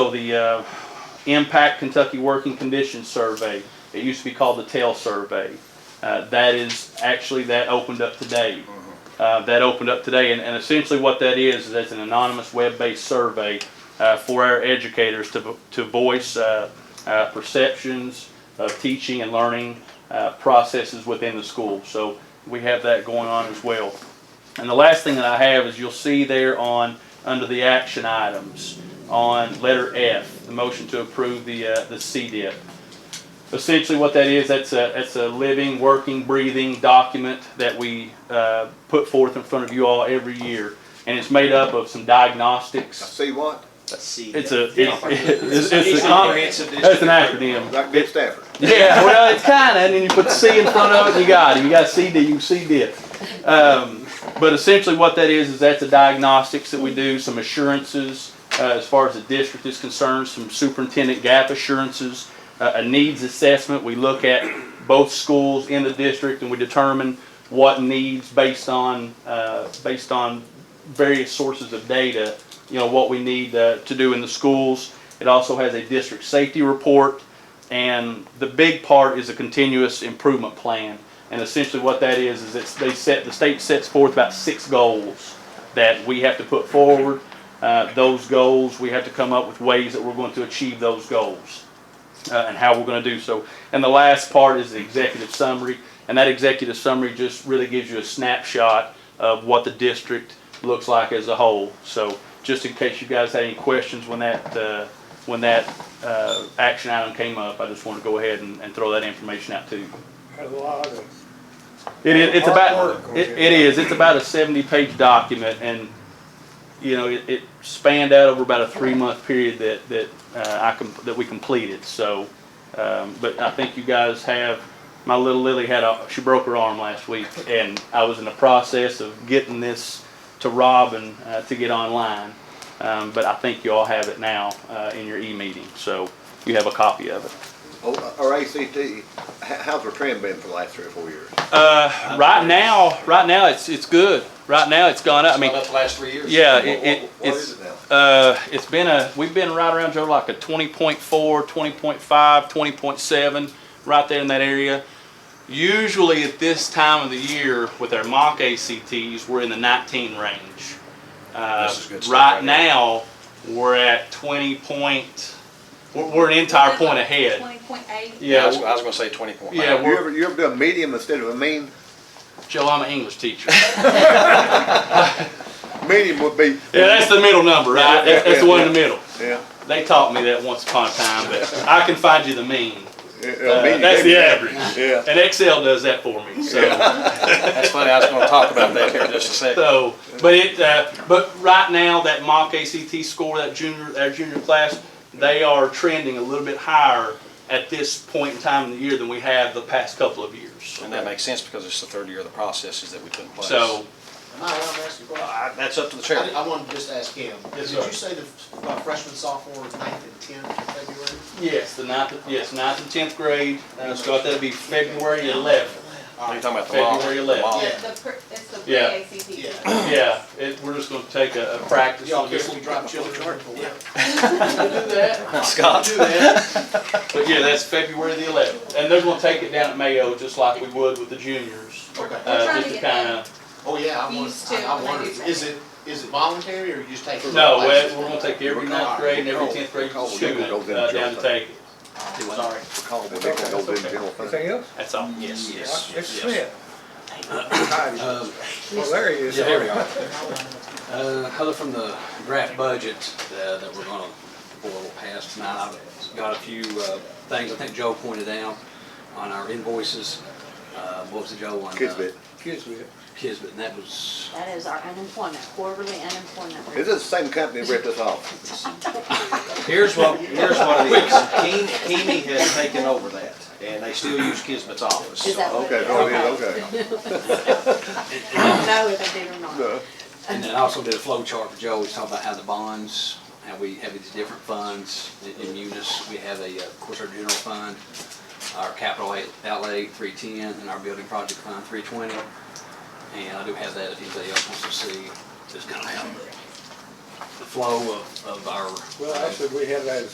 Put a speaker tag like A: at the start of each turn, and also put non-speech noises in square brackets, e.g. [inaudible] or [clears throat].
A: the uh, Impact Kentucky Working Conditions Survey. It used to be called the TAIL Survey. Uh, that is actually that opened up today. Uh, that opened up today, and, and essentially what that is is that's an anonymous web-based survey uh, for our educators to to voice uh, uh, perceptions of teaching and learning uh, processes within the school. So we have that going on as well. And the last thing that I have is you'll see there on, under the action items, on letter F, the motion to approve the, uh, the CDIP. Essentially what that is, that's a, that's a living, working, breathing document that we, uh, put forth in front of you all every year. And it's made up of some diagnostics.
B: See what?
C: See,
A: It's
C: that.
A: a, it's, it's, it's
C: It's
A: a,
C: a
A: com-
C: comprehensive
A: that's an
C: district.
A: acronym.
B: Like Bill Stafford.
A: Yeah, well, it's kind of, and then you put C in front of it, you got it. You got CD, you CD it. Um, but essentially, what that is is that's the diagnostics that we do, some assurances uh, as far as the district is concerned, some superintendent gap assurances, uh, a needs assessment. We look at both schools in the district and we determine what needs based on uh, based on various sources of data. You know what we need uh, to do in the schools. It also has a district safety report. And the big part is a continuous improvement plan. And essentially what that is, is it's, they set, the state sets forth about six goals that we have to put forward. Uh, those goals, we have to come up with ways that we're going to achieve those goals uh, and how we're going to do so. And the last part is the executive summary, and that executive summary just really gives you a snapshot of what the district looks like as a whole. So just in case you guys had any questions when that, uh, when that uh, action item came up, I just want to go ahead and, and throw that information out to you.
D: a lot of.
A: It is, it's
D: Hard
A: about,
D: work.
A: it, it is, it's about a seventy-page document and, you know, it, it spanned out over about a three-month period that, that, uh, I com, that we completed, so. Um, but I think you guys have, my little Lily had a, she broke her arm last week and I was in the process of getting this to Robin, uh, to get online. Um, but I think you all have it now, uh, in your e-meeting, so you have a copy of it.
B: Oh, Our ACT, h- how's our trend been for the last three or four years?
A: Uh, right now, right now, it's, it's good. Right now, it's gone up. I mean,
C: About the last three years.
A: yeah,
B: What-
A: it,
B: what-
A: it,
B: What is
A: it's,
B: it now?
A: uh, it's been a, we've been right around, Joe, like a 20.4, 20.5, 20.7, right there in that area. Usually at this time of the year with our mock ACTs, we're in the 19 range. Uh,
C: This is good stuff
A: right
C: right
A: now, we're at 20 point, we're, we're an entire point ahead.
E: Twenty point eight.
C: Yeah, I
A: Yeah,
C: was,
A: w-
C: I was gonna say twenty point.
A: Yeah,
B: You ever, you ever do a medium instead of a mean?
A: Joe, I'm an English teacher.
B: Medium would be,
A: Yeah, that's the middle number, right? That's, that's the one in the middle.
B: yeah.
A: They taught me that once upon a time, but I can find you the mean.
B: yeah, a
A: Uh,
B: medium.
A: that's the average.
B: Yeah.
A: And Excel does that for me. So,
C: That's funny, I was gonna talk about that here in just a second.
A: so but it, uh, but right now that mock ACT score, that junior, that junior class, they are trending a little bit higher at this point in time in the year than we have the past couple of years.
C: And that makes sense because it's the third year of the processes that we put in place.
A: So,
F: Am I allowed to ask you a question?
C: I- That's up to the
F: I,
C: chair.
F: I wanted to just ask him.
A: Yes,
F: Did
A: sir.
F: you say the f- uh, freshman, sophomore, ninth and tenth of February?
A: yes, the ninth, yes, ninth and tenth grade, uh, Scott, that'd be February [clears throat] eleventh.
C: Are you talking about the law?
A: February 11th.
C: The law.
F: Yeah.
E: The, pre- it's the
A: Yeah.
E: pre-ACT.
F: Yeah.
A: Yeah, it, we're just gonna take a, a practice.
F: Y'all
A: on
F: care
A: this.
F: if we drop children? Yeah.
A: do that.
C: Scott?
A: Do that. But yeah, that's February the eleventh, and they're gonna take it down at Mayo, just like we would with the juniors. [laughs]
F: Okay.
A: Uh,
E: trying
A: just
E: to
A: to
E: get them.
A: kinda,
F: Oh, yeah, I want,
E: Used to
F: I I
E: when they
F: wondered,
E: do that.
F: is it, is it voluntary or you just take?
A: no, we're,
F: classes?
A: we're gonna take every
B: We're
A: ninth
B: called-
A: grade and every
B: we're
A: tenth grade
B: called-
A: student
B: we're called
A: uh, down to
B: them
A: take it.
F: Sorry.
B: Call them, they can go do the general fund.
D: Anything else?
A: That's all.
C: Yes, yes.
D: Mr.
C: yes.
D: Smith? Well, there he is.
G: Yeah, there we are. Uh, Other from the draft budget uh, that we're gonna, the board will pass tonight, I've got a few uh, things I think Joe pointed out on our invoices. Uh, What was the Joe one?
B: Kids bit.
D: Kids with it.
G: Kisbit, and that was,
H: That is our unemployment, quarterly unemployment.
B: Is
H: rate.
B: this the same company that ripped us off?
C: Here's what, here's what it is. Keen- Keeney has taken over that, and they still use Kismet's office.
H: Is that what?
B: Okay, oh, it is, okay.
H: I don't know if I did or not.
B: No.
G: and then also did a flow chart for Joe, he's talking about how the bonds, how we have these different funds in- in Munis. We have a, uh, of course, our general fund, our capital outlay, three ten, and our building project fund, three twenty. And I do have that if anybody else wants to see, just kind of how
I: flow of, of our
G: Well, actually, we have that as